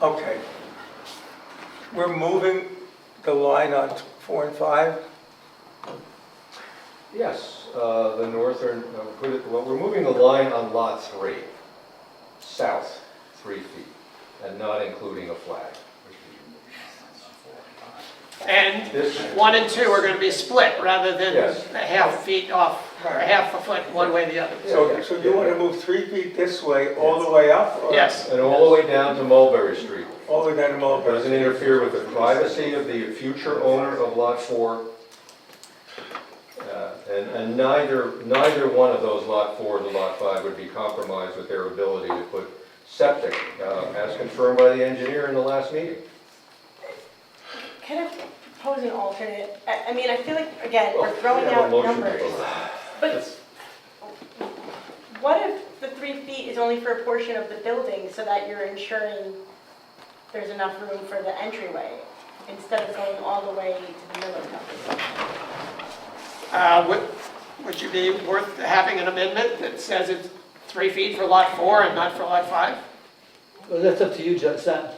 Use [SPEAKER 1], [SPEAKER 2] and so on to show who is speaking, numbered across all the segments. [SPEAKER 1] Okay. We're moving the line on four and five.
[SPEAKER 2] Yes, uh, the northern, no, put it- well, we're moving the line on lot three, south three feet, and not including a flag.
[SPEAKER 3] And
[SPEAKER 2] This,
[SPEAKER 3] one and two are gonna be split rather than
[SPEAKER 2] Yes.
[SPEAKER 3] a half feet off, or a half a foot one way or the other.
[SPEAKER 1] So, so you want to move three feet this way, all the way up? or
[SPEAKER 3] Yes,
[SPEAKER 2] and all the way down to Mulberry Street.
[SPEAKER 1] All the way down to
[SPEAKER 2] It
[SPEAKER 1] Mulberry?
[SPEAKER 2] Doesn't interfere with the privacy of the future owner of lot four. Uh, And, and neither, neither one of those lot four to lot five would be compromised with their ability to put septic, uh, as confirmed by the engineer in the last meeting.
[SPEAKER 4] Could I propose an alternate? I, I mean, I feel like, again,
[SPEAKER 2] Well,
[SPEAKER 4] we're throwing
[SPEAKER 2] we have a
[SPEAKER 4] out
[SPEAKER 2] motion to
[SPEAKER 4] numbers.
[SPEAKER 2] vote.
[SPEAKER 4] But what if the three feet is only for a portion of the building so that you're ensuring there's enough room for the entryway instead of going all the way to the middle of the
[SPEAKER 3] uh, would, would you be worth having an amendment that says it's three feet for lot four and not for lot five?
[SPEAKER 5] Well, that's up to you, Jeff, it's not,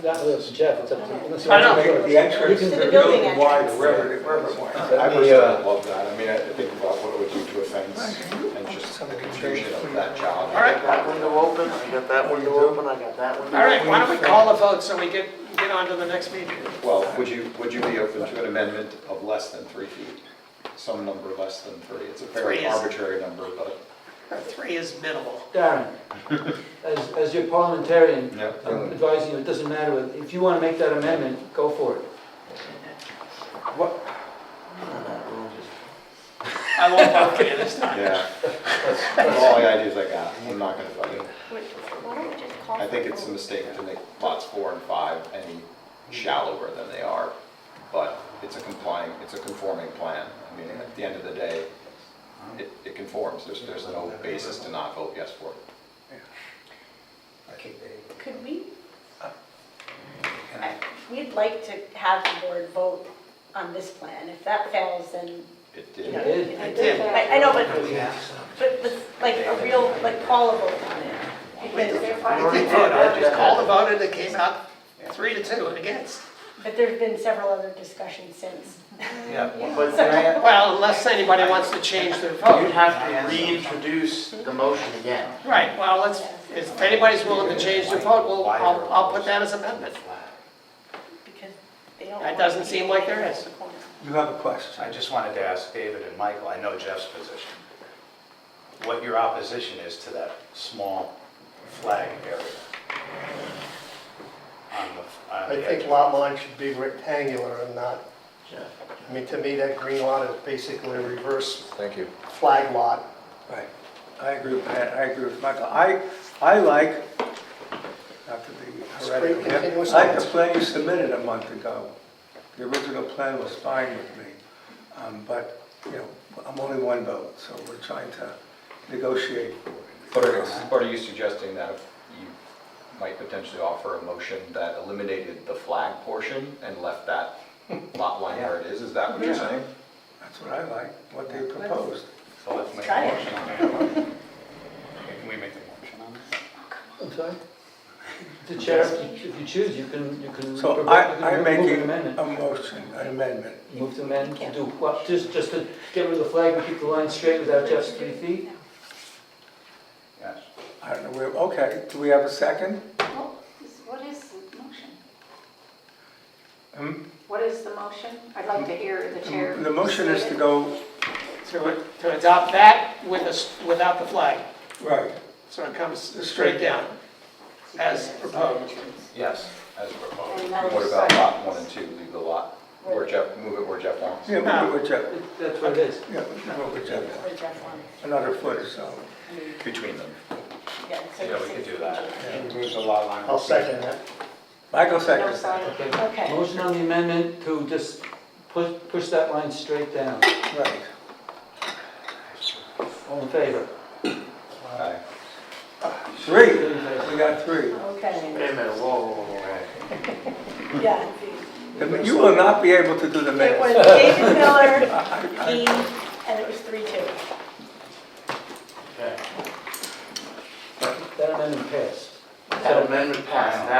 [SPEAKER 5] that was Jeff, it's up to. unless you
[SPEAKER 3] I
[SPEAKER 5] want to
[SPEAKER 1] Make
[SPEAKER 5] go
[SPEAKER 1] The entrance
[SPEAKER 4] To
[SPEAKER 1] to
[SPEAKER 4] the
[SPEAKER 1] the
[SPEAKER 4] building
[SPEAKER 1] building wide,
[SPEAKER 4] entrance.
[SPEAKER 1] wherever, wherever wide.
[SPEAKER 6] I
[SPEAKER 2] Let me,
[SPEAKER 6] personally
[SPEAKER 2] uh,
[SPEAKER 6] love that. I mean, I think about what it would do to a fence and just the confusion of that job.
[SPEAKER 3] All right.
[SPEAKER 7] That window open, I got that window open, I got that window.
[SPEAKER 3] All right, why don't we call a vote so we get, get on to the next meeting?
[SPEAKER 6] Well, would you, would you be open to an amendment of less than three feet? Some number less than three. It's a
[SPEAKER 3] Three
[SPEAKER 6] very
[SPEAKER 3] is-
[SPEAKER 6] arbitrary number, but.
[SPEAKER 3] Uh, Three is minimal.
[SPEAKER 5] Darren, as, as your parliamentarian,
[SPEAKER 6] Yeah.
[SPEAKER 5] I'm advising you, it doesn't matter, what- if you want to make that amendment, go for it.
[SPEAKER 3] I won't vote for you this time.
[SPEAKER 6] Yeah. That's all the ideas I got. I'm not gonna fight it.
[SPEAKER 4] building. Why don't we just call?
[SPEAKER 6] I think it's a
[SPEAKER 4] for a vote?
[SPEAKER 6] mistake to make lots four and five any shallower than they are. But it's a complying, it's a conforming plan. I mean, at the end of the day, it, it conforms. There's, there's no basis to not vote yes for it.
[SPEAKER 4] Could we? I- We'd like to have the board vote on this plan. If that fails, then,
[SPEAKER 6] It
[SPEAKER 4] you
[SPEAKER 6] did.
[SPEAKER 4] know.
[SPEAKER 5] did.
[SPEAKER 4] you know,
[SPEAKER 3] It did.
[SPEAKER 4] I, I know, but, but, but like a real, like call a vote on it. Because
[SPEAKER 3] We voted, I just called a vote and it came out three to two and against.
[SPEAKER 4] But there's been several other discussions since.
[SPEAKER 7] Yeah, but can
[SPEAKER 3] Well, unless anybody wants to change their
[SPEAKER 7] I- you'd
[SPEAKER 3] vote.
[SPEAKER 7] have to reintroduce the motion again.
[SPEAKER 3] Right, well, let's, if anybody's willing to change their vote, we'll, I'll, I'll put that as amendment.
[SPEAKER 4] Because they don't.
[SPEAKER 3] That
[SPEAKER 4] want
[SPEAKER 3] doesn't
[SPEAKER 4] to
[SPEAKER 3] seem
[SPEAKER 4] be
[SPEAKER 3] like there
[SPEAKER 4] in
[SPEAKER 3] is.
[SPEAKER 4] the corner.
[SPEAKER 1] You have a question?
[SPEAKER 8] I just wanted to ask David and Michael, I know Jeff's position, what your opposition is to that small flag area on the, on
[SPEAKER 9] I
[SPEAKER 8] the
[SPEAKER 9] think
[SPEAKER 8] edge.
[SPEAKER 9] lot line should be rectangular and not, I mean, to me, that green lot is basically a reverse
[SPEAKER 2] Thank you.
[SPEAKER 9] flag lot.
[SPEAKER 1] Right. I agree with Pat, I agree with Michael. I, I like, not to be
[SPEAKER 9] Straight
[SPEAKER 1] heretical, here,
[SPEAKER 9] continuous
[SPEAKER 1] I like the
[SPEAKER 9] lines.
[SPEAKER 1] plan you submitted a month ago. The original plan was fine with me, Um, but, you know, I'm only one vote, so we're trying to negotiate.
[SPEAKER 6] But are, but are you suggesting that you might potentially offer a motion that eliminated the flag portion and left that lot line where it is? Is that what you're saying?
[SPEAKER 1] That's what I like, what they proposed.
[SPEAKER 8] So let's make
[SPEAKER 4] Try
[SPEAKER 8] a
[SPEAKER 4] it.
[SPEAKER 8] motion on that. Can we make the motion on that?
[SPEAKER 5] I'm sorry? The chair, if you choose, you can, you can.
[SPEAKER 1] So
[SPEAKER 5] you can
[SPEAKER 1] I, I'm
[SPEAKER 5] move an
[SPEAKER 1] making
[SPEAKER 5] amendment.
[SPEAKER 1] a motion, an amendment.
[SPEAKER 5] Move to amend, to do what, just, just to get rid of the flag and keep the line straight without Jeff's three feet?
[SPEAKER 8] Yes.
[SPEAKER 1] I don't know, where. okay, do we have a second?
[SPEAKER 10] What is- What is the motion?
[SPEAKER 1] Hmm?
[SPEAKER 10] What is the motion? I'd like to hear the chair.
[SPEAKER 1] The motion is
[SPEAKER 10] say
[SPEAKER 1] to
[SPEAKER 10] it.
[SPEAKER 1] go,
[SPEAKER 3] To, to adopt that with a s without the flag,
[SPEAKER 1] right,
[SPEAKER 3] so it comes straight down as proposed.
[SPEAKER 6] Yes, as proposed.
[SPEAKER 10] And that
[SPEAKER 6] What
[SPEAKER 10] is
[SPEAKER 6] about lot
[SPEAKER 10] silence.
[SPEAKER 6] one and two? Leave the lot where Jeff, move it where Jeff wants.
[SPEAKER 1] yeah, move it with Jeff,
[SPEAKER 5] That's what it is.
[SPEAKER 1] yeah, move it with Jeff.
[SPEAKER 4] Or Jeff wants,
[SPEAKER 1] another foot or so.
[SPEAKER 6] Between them.
[SPEAKER 4] yeah, so
[SPEAKER 8] Yeah, we
[SPEAKER 4] six
[SPEAKER 8] could do
[SPEAKER 4] feet.
[SPEAKER 8] that.
[SPEAKER 6] Moves the lot line.
[SPEAKER 9] I'll second that.
[SPEAKER 1] Michael
[SPEAKER 10] No
[SPEAKER 1] seconds.
[SPEAKER 10] silence.
[SPEAKER 5] Okay. Motion on the amendment to just push, push that line straight down.
[SPEAKER 1] Right.
[SPEAKER 5] All in favor?
[SPEAKER 6] Aye.
[SPEAKER 1] Three,
[SPEAKER 5] Three in favor.
[SPEAKER 1] we got three.
[SPEAKER 4] Okay,
[SPEAKER 7] Wait a minute, whoa, whoa, whoa, whoa.
[SPEAKER 4] yeah.
[SPEAKER 1] The- You will not be able to do the
[SPEAKER 4] It was
[SPEAKER 1] minutes.
[SPEAKER 4] David Miller, me, and it was three two.
[SPEAKER 7] Okay.
[SPEAKER 5] That amendment passed.
[SPEAKER 7] That amendment passed,